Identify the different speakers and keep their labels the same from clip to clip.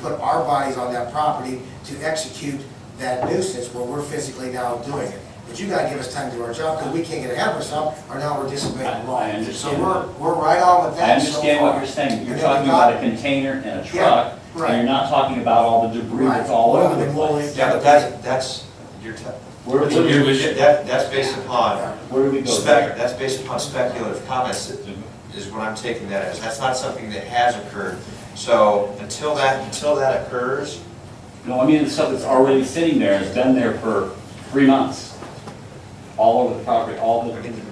Speaker 1: put our bodies on that property to execute that nuisance where we're physically now doing it. But you gotta give us time to do our job, because we can't get ahead of ourselves, or now we're disobeying the law.
Speaker 2: I- I understand
Speaker 1: So we're,
Speaker 2: that.
Speaker 1: we're right on with
Speaker 2: I
Speaker 1: that so
Speaker 2: understand what
Speaker 1: far.
Speaker 2: you're saying, you're
Speaker 1: And then we
Speaker 2: talking
Speaker 1: got-
Speaker 2: about a container and a
Speaker 1: Yeah,
Speaker 2: truck,
Speaker 1: right.
Speaker 2: and you're not talking about all the debris that's
Speaker 1: Right.
Speaker 2: all
Speaker 1: Well,
Speaker 2: over the
Speaker 1: then we'll
Speaker 2: place.
Speaker 1: leave-
Speaker 3: Yeah, but that, that's, you're, te-
Speaker 2: Where,
Speaker 3: you're-
Speaker 2: where,
Speaker 3: you're- that, that's based upon
Speaker 2: where do we go?
Speaker 3: spec, that's based upon speculative comments, that- is what I'm taking that as. That's not something that has occurred. So until that, until that occurs,
Speaker 2: No, I mean, the stuff that's already sitting there, it's been there for three months, all over the property, all
Speaker 3: I
Speaker 2: the,
Speaker 3: mean,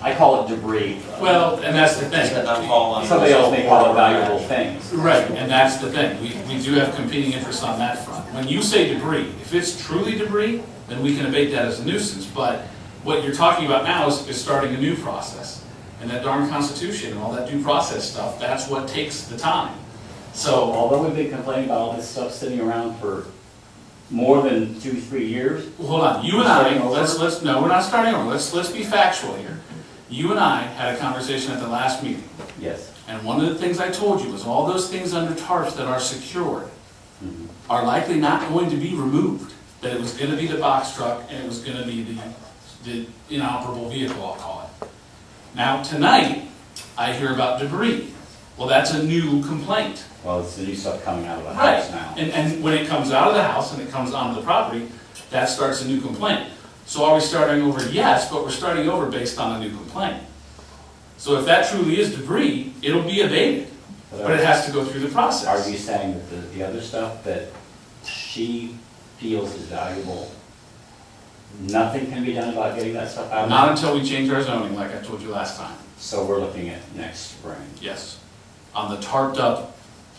Speaker 2: I call it debris.
Speaker 4: Well, and that's the
Speaker 3: does that not
Speaker 4: thing.
Speaker 3: fall on?
Speaker 2: Somebody else may call it valuable things.
Speaker 4: Right, and that's the thing. We, we do have competing interests on that front. When you say debris, if it's truly debris, then we can abate that as a nuisance. But what you're talking about now is, is starting a new process. And that darn constitution and all that due process stuff, that's what takes the time. So,
Speaker 2: Although we've been complaining about all this stuff sitting around for more than two, three years,
Speaker 4: hold on, you and
Speaker 2: Starting
Speaker 4: I,
Speaker 2: over?
Speaker 4: let's, let's, no, we're not starting over. Let's, let's be factual here. You and I had a conversation at the last meeting.
Speaker 2: yes.
Speaker 4: And one of the things I told you was all those things under tarps that are secured
Speaker 2: Mm-hmm.
Speaker 4: are likely not going to be removed. That it was gonna be the box truck and it was gonna be the, the inoperable vehicle, I'll call it. Now, tonight, I hear about debris. Well, that's a new complaint.
Speaker 2: Well, it's the new stuff coming out of the
Speaker 4: Right,
Speaker 2: house now.
Speaker 4: and, and when it comes out of the house and it comes onto the property, that starts a new complaint. So are we starting over? Yes, but we're starting over based on a new complaint. So if that truly is debris, it'll be abated, but it has to go through the
Speaker 2: Are you
Speaker 4: process.
Speaker 2: saying that the, the other stuff that she feels is valuable, nothing can be done about getting that stuff out?
Speaker 4: Not until we change our zoning, like I told you last time,
Speaker 2: So we're looking at next spring.
Speaker 4: yes. On the tarped up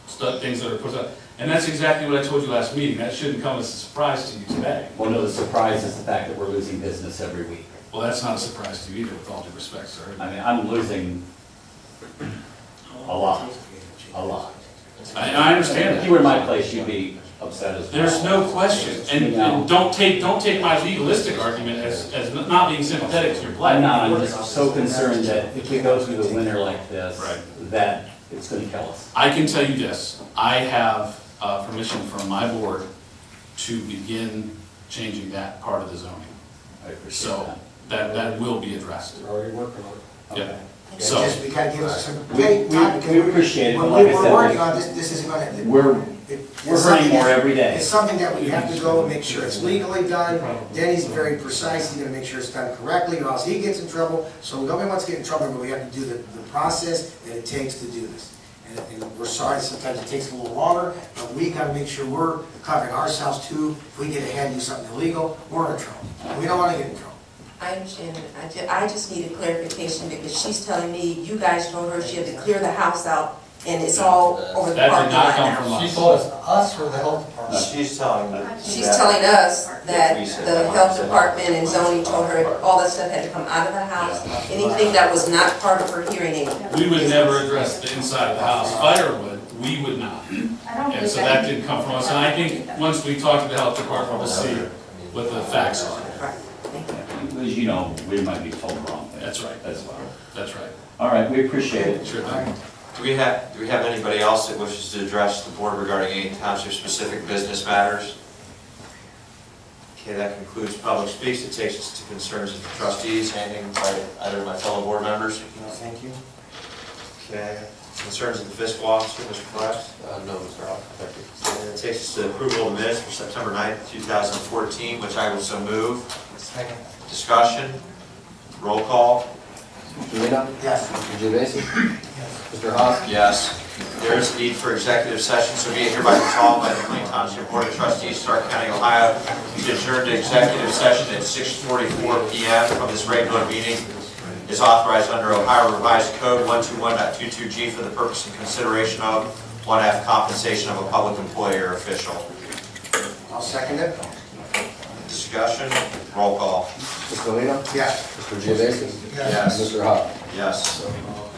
Speaker 4: stuff, things that are put up, and that's exactly what I told you last meeting, that shouldn't come as a surprise to you today.
Speaker 2: One of the surprises is the fact that we're losing business every week.
Speaker 4: Well, that's not a surprise to you either, with all due respect, sir.
Speaker 2: I mean, I'm losing a lot, a lot.
Speaker 4: I, I understand that.
Speaker 2: If you were in my place, you'd be upset as well.
Speaker 4: There's no question, and, and don't take, don't take my legalistic argument as, as not being sympathetic to your
Speaker 2: I'm
Speaker 4: plight.
Speaker 2: not, I'm just so concerned that if we go through the winter like this,
Speaker 4: Right.
Speaker 2: that it's gonna kill us.
Speaker 4: I can tell you this, I have, uh, permission from my board to begin changing that part of the zoning.
Speaker 2: I appreciate
Speaker 4: So,
Speaker 2: that.
Speaker 4: that, that will be addressed.
Speaker 5: We're already working on it.
Speaker 4: Yeah.
Speaker 1: And
Speaker 4: So,
Speaker 1: just, we gotta give us some,
Speaker 2: We-
Speaker 1: hey,
Speaker 2: we-
Speaker 1: time, because
Speaker 2: we appreciate it,
Speaker 1: When
Speaker 2: but like
Speaker 1: we
Speaker 2: I
Speaker 1: were
Speaker 2: said,
Speaker 1: working
Speaker 2: we-
Speaker 1: on this, this isn't gonna. it-
Speaker 2: We're-
Speaker 1: it-
Speaker 2: we're
Speaker 1: it's
Speaker 2: hurting
Speaker 1: something
Speaker 2: more
Speaker 1: that-
Speaker 2: every day.
Speaker 1: It's something that we have to go and make sure it's legally done. Denny's very precise, he's gonna make sure it's done correctly, or else he gets in trouble. So nobody wants to get in trouble, but we have to do the, the process that it takes to do this. And, and we're sorry, sometimes it takes a little longer, but we gotta make sure we're covering ourselves too. If we get ahead and do something illegal, we're in trouble. We don't wanna get in trouble.
Speaker 6: I understand, I ju- I just need a clarification because she's telling me, you guys told her she had to clear the house out and it's all over the
Speaker 4: That did
Speaker 6: parking
Speaker 4: not
Speaker 6: lot
Speaker 4: come from
Speaker 6: now.
Speaker 5: She told us, us or the health department?
Speaker 3: She's telling. the-
Speaker 6: She's
Speaker 3: that-
Speaker 6: telling us that
Speaker 3: We said
Speaker 6: the
Speaker 3: that.
Speaker 6: health department and zoning told her all that stuff had to come out of the house. Anything that was not part of her hearing aid.
Speaker 4: we would never address the inside of the house, firewood, we would not. And so that didn't come from us, and I think, once we talk to the health department, we'll see what the facts are.
Speaker 6: Right, thank you.
Speaker 2: As you know, we might be told wrong.
Speaker 4: That's right.
Speaker 2: As well.
Speaker 4: That's right,
Speaker 2: All right, we appreciate it.
Speaker 4: sure thing.
Speaker 3: Do we have, do we have anybody else that wishes to address the board regarding any township-specific business matters? Okay, that concludes public speaks. It takes us to concerns of the trustees, handing by either of my fellow board members.
Speaker 1: No, Thank you.
Speaker 3: Okay, concerns of the fiscal officer, Mr. Flex.
Speaker 5: Uh, no, Mr. Al, thank you.
Speaker 3: And it takes us to approval of minutes for September 9th, 2014, which I will so move.
Speaker 5: Second.
Speaker 3: Discussion, roll call.
Speaker 5: Juliana?
Speaker 1: Yes.
Speaker 5: Mr. Gevasis? Mr. Haas?
Speaker 3: Yes. There is a need for executive session, so be it hereby resolved by the Plain Township Board of Trustees, Stark County, Ohio, to adjourn to executive session at 6:44 PM from this regular meeting is authorized under Ohio Revised Code 121.22G for the purpose and consideration of one half compensation of a public employee or official.
Speaker 1: I'll second it.
Speaker 3: Discussion, roll call.
Speaker 5: Mr. Lino?
Speaker 1: Yes.
Speaker 5: Mr. Gevasis?
Speaker 3: Yes.
Speaker 5: Mr. Haas?
Speaker 3: Yes.